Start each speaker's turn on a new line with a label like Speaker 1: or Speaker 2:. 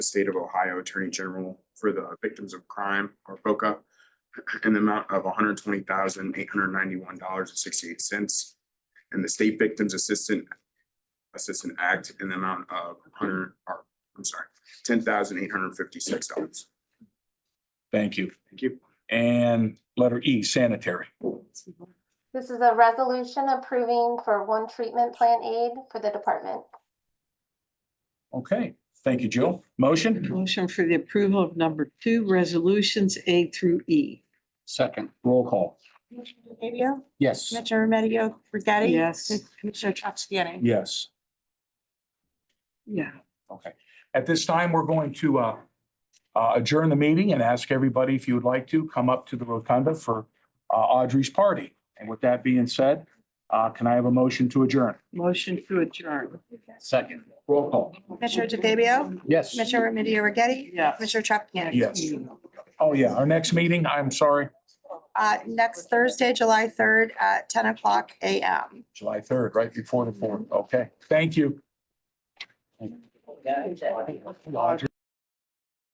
Speaker 1: the state of Ohio Attorney General for the Victims of Crime or BOCA in the amount of one hundred twenty thousand eight hundred ninety-one dollars and sixty-eight cents and the State Victims Assistant Assistant Act in the amount of hundred, or, I'm sorry, ten thousand eight hundred fifty-six dollars.
Speaker 2: Thank you.
Speaker 1: Thank you.
Speaker 2: And letter E, sanitary.
Speaker 3: This is a resolution approving for one treatment plan aid for the department.
Speaker 2: Okay, thank you, Jill. Motion?
Speaker 4: Motion for the approval of number two, resolutions A through E.
Speaker 2: Second. Roll call.
Speaker 5: Commissioner Fabio,
Speaker 2: Yes.
Speaker 5: Commissioner Remedio Agati.
Speaker 4: Yes,
Speaker 5: Commissioner Traficani.
Speaker 2: Yes.
Speaker 4: yeah.
Speaker 2: Okay. At this time, we're going to uh, uh, adjourn the meeting and ask everybody if you would like to come up to the rotunda for uh, Audrey's party. And with that being said, uh, can I have a motion to adjourn?
Speaker 4: Motion to adjourn.
Speaker 2: Second. Roll call.
Speaker 5: Commissioner DeFabio,
Speaker 2: Yes.
Speaker 5: Commissioner Remedio Agati.
Speaker 4: Yes.
Speaker 5: Commissioner Traficani.
Speaker 2: Yes. Oh, yeah. Our next meeting, I'm sorry,
Speaker 5: Uh, next Thursday, July third, at ten o'clock AM.
Speaker 2: July 3rd, right before the 4th. Okay, thank you. Audrey.